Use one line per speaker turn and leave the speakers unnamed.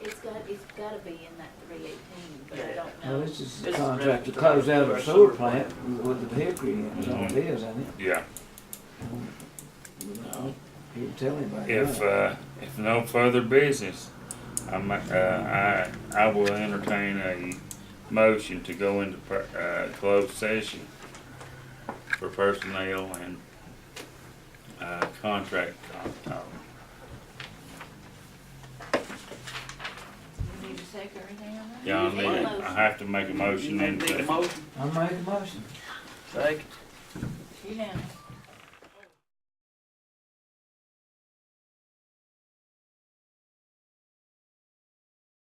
it's gotta be in that three eighteen, but I
Yeah.
don't
Well,
know.
this is the
This is
contract to
revenue
close out
for
a
our
sewer
sewer
plant with the hickory, that's all it is, ain't
Yeah,
it? No, you can tell anybody.
if,
that.
uh, if no further business, I'm, uh, I, I will entertain a motion to go into, per- uh, closed session for personnel and, uh, contract Uh, talk.
You need a second or anything on that?
Yeah, I
You
need,
a
I
motion.
have to make a motion
Make
into
a
it.
motion,
I made a motion.
second.
You have.